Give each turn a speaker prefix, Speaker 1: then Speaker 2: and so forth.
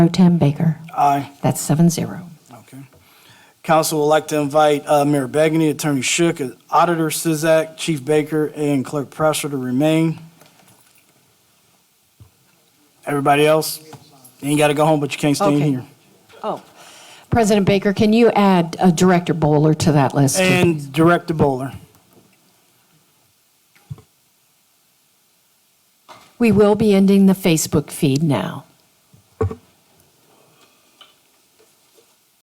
Speaker 1: Pro Tem Baker.
Speaker 2: Aye.
Speaker 1: That's seven zero.
Speaker 2: Okay. Council would like to invite uh, Mayor Begney, Attorney Shook, Auditor Sizak, Chief Baker, and Clerk Presser to remain. Everybody else? You ain't got to go home, but you can't stay in
Speaker 1: Okay.
Speaker 2: here.
Speaker 1: Oh, President Baker, can you add uh, Director Bowler to that list? too?
Speaker 2: And Director Bowler.
Speaker 1: We will be ending the Facebook feed now.